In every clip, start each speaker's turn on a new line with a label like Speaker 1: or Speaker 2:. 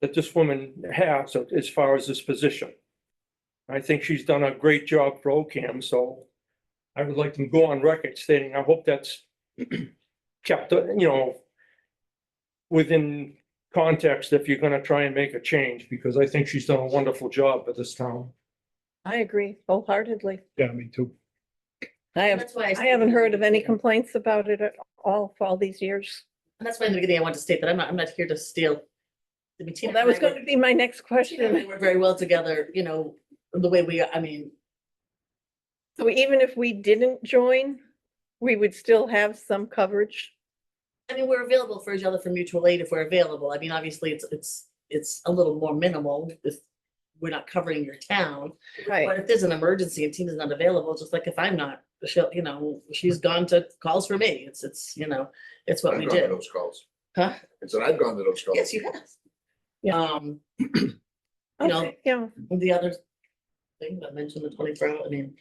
Speaker 1: that this woman has as far as this position. I think she's done a great job for OCAM, so I would like to go on record stating, I hope that's kept, uh, you know, within context if you're gonna try and make a change, because I think she's done a wonderful job for this town.
Speaker 2: I agree wholeheartedly.
Speaker 3: Yeah, me too.
Speaker 2: I have,
Speaker 4: That's why
Speaker 2: I haven't heard of any complaints about it at all for all these years.
Speaker 4: That's why in the beginning I wanted to state that I'm not, I'm not here to steal. I mean, Tina
Speaker 2: That
Speaker 4: and
Speaker 2: was
Speaker 4: I
Speaker 2: going
Speaker 4: work-
Speaker 2: to be my next
Speaker 4: Tina and I
Speaker 2: question.
Speaker 4: work very well together, you know, the way we, I mean,
Speaker 2: So even if we didn't join, we would still have some coverage.
Speaker 4: I mean, we're available for each other for mutual aid if we're available. I mean, obviously, it's, it's, it's a little more minimal if we're not covering your town. But if there's an emergency and Tina's not available, just like if I'm not, she'll, you know, she's gone to calls for me. It's, it's, you know, it's what
Speaker 5: I've
Speaker 4: we
Speaker 5: gone to
Speaker 4: do.
Speaker 5: Those calls.
Speaker 4: Huh?
Speaker 5: And so I've gone to those calls.
Speaker 4: Yes, you have.
Speaker 2: Yeah.
Speaker 4: Um, you know,
Speaker 2: Okay, yeah,
Speaker 4: the other thing that I mentioned, the twenty-four hour, I mean,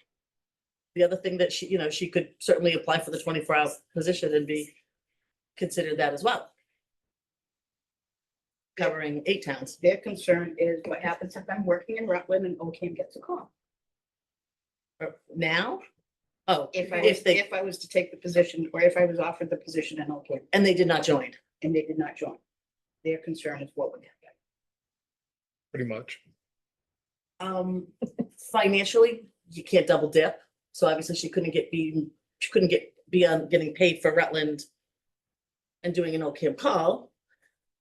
Speaker 4: the other thing that she, you know, she could certainly apply for the twenty-four hour position and be considered that as well. Covering eight towns.
Speaker 6: Their concern is what happens if I'm working in Rutland and OCAM gets a call.
Speaker 4: Or Now? Oh,
Speaker 6: If I,
Speaker 4: If
Speaker 6: was-
Speaker 4: they-
Speaker 6: if I was to take the position, or if I was offered the position in OCAM
Speaker 4: and they did not join.
Speaker 6: and they did not join. Their concern is what would happen.
Speaker 3: Pretty much.
Speaker 4: Um, financially, you can't double dip, so obviously she couldn't get be, she couldn't get beyond getting paid for Rutland. And doing an OCAM call.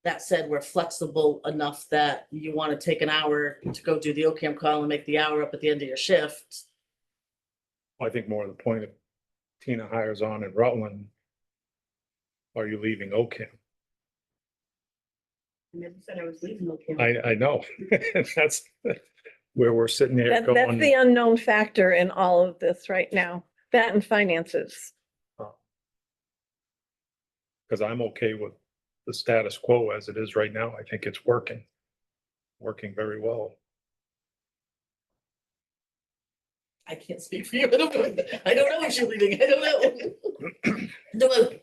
Speaker 4: That said, we're flexible enough that you want to take an hour to go do the OCAM call and make the hour up at the end of your shift.
Speaker 3: I think more of the point, if Tina hires on in Rutland, are you leaving OCAM?
Speaker 6: I never said I was leaving OCAM.
Speaker 3: I, I know. That's where we're sitting here
Speaker 2: that, that's the
Speaker 3: going,
Speaker 2: unknown factor in all of this right now, that and finances.
Speaker 3: because I'm okay with the status quo as it is right now. I think it's working. Working very well.
Speaker 4: I can't speak for you. I don't know. I don't know if she's leaving. I don't know. Don't know.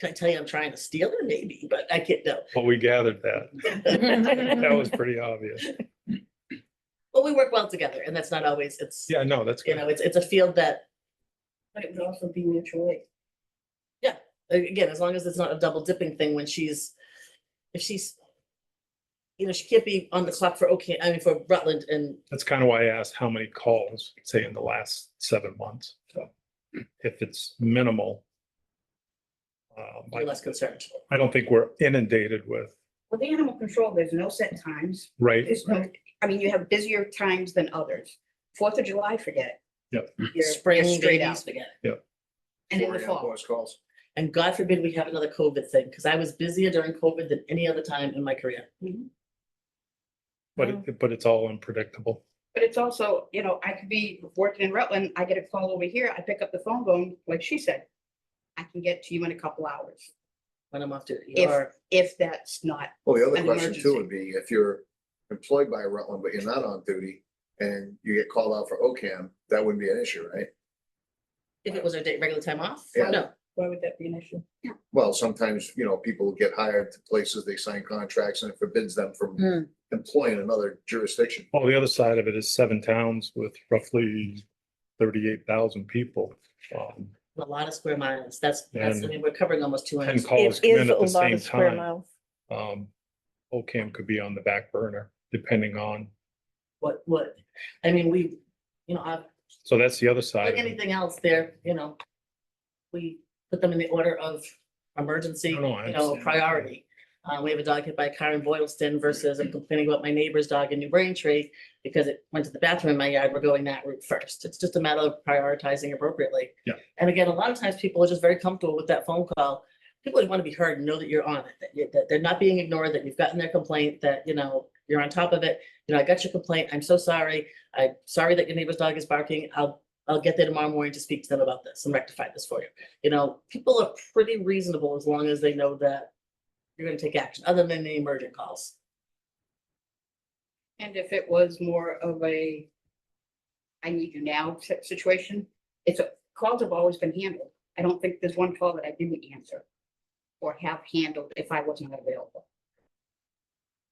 Speaker 4: Can I tell you I'm trying to steal her? Maybe, but I can't know.
Speaker 3: But we gathered that. That was pretty obvious.
Speaker 4: Well, we work well together and that's not always, it's,
Speaker 3: Yeah, no, that's
Speaker 4: you
Speaker 3: good.
Speaker 4: know, it's, it's a field that
Speaker 6: But it would also be mutual aid.
Speaker 4: again, as long as it's not a double dipping thing when she's, if she's, you know, she can't be on the clock for okay, I mean, for Rutland and
Speaker 3: That's kind of why I asked how many calls, say, in the last seven months. So if it's minimal. um,
Speaker 4: you're less concerned.
Speaker 3: I don't think we're inundated with,
Speaker 6: With animal control, there's no set times.
Speaker 3: right?
Speaker 6: There's no, I mean, you have busier times than others. Fourth of July, forget it.
Speaker 3: Yep.
Speaker 6: You're- you're
Speaker 4: Spring,
Speaker 6: straight
Speaker 4: baby,
Speaker 6: out.
Speaker 4: spaghetti.
Speaker 6: And in
Speaker 5: Four
Speaker 6: the
Speaker 5: animal
Speaker 6: fall.
Speaker 5: Those calls.
Speaker 4: And God forbid we have another COVID thing, because I was busier during COVID than any other time in my career.
Speaker 3: But, it- but it's all unpredictable.
Speaker 6: But it's also, you know, I could be working in Rutland, I get a call over here, I pick up the phone going, like she said, I can get to you in a couple hours,
Speaker 4: When I'm off duty,
Speaker 6: If-
Speaker 4: or
Speaker 6: if that's not,
Speaker 5: Well, the other
Speaker 6: An
Speaker 5: question too
Speaker 6: emergency.
Speaker 5: would be if you're employed by Rutland, but you're not on duty and you get called out for OCAM, that wouldn't be an issue, right?
Speaker 4: if it was our date, regular time off,
Speaker 5: Yeah.
Speaker 4: no.
Speaker 6: why would that be an issue?
Speaker 5: Well, sometimes, you know, people get hired to places, they sign contracts and it forbids them
Speaker 4: Hmm.
Speaker 5: from employing another jurisdiction.
Speaker 3: Well, the other side of it is seven towns with roughly thirty-eight thousand people. Um,
Speaker 4: A lot of square miles. That's, that's, I
Speaker 3: And-
Speaker 4: mean, we're covering almost two
Speaker 3: Ten
Speaker 4: hundred.
Speaker 3: calls
Speaker 2: It
Speaker 3: come
Speaker 2: is
Speaker 3: in
Speaker 2: a
Speaker 3: at the
Speaker 2: lot
Speaker 3: same
Speaker 2: of square
Speaker 3: time.
Speaker 2: miles.
Speaker 3: Um, OCAM could be on the back burner depending on,
Speaker 4: What, what, I mean, we, you know, I,
Speaker 3: so that's the other side.
Speaker 4: Like
Speaker 3: of it.
Speaker 4: anything else there, you know, we put them in the order of emergency, you
Speaker 3: No, no, I
Speaker 4: know,
Speaker 3: understand.
Speaker 4: priority. Uh, we have a dog hit by a car in Boylston versus I'm complaining about my neighbor's dog in New Braintree because it went to the bathroom in my yard. We're going that route first. It's just a matter of prioritizing appropriately.
Speaker 3: Yeah.
Speaker 4: And again, a lot of times people are just very comfortable with that phone call. People want to be heard and know that you're on it, that you- that they're not being ignored, that you've gotten their complaint, that, you know, you're on top of it. You know, I got your complaint. I'm so sorry. I'm sorry that your neighbor's dog is barking. I'll I'll get there tomorrow morning to speak to them about this and rectify this for you. You know, people are pretty reasonable as long as they know that you're gonna take action, other than the emergent calls.
Speaker 6: And if it was more of a, I need you now si- situation, it's, a- calls have always been handled. I don't think there's one call that I didn't answer or have handled if I wasn't available.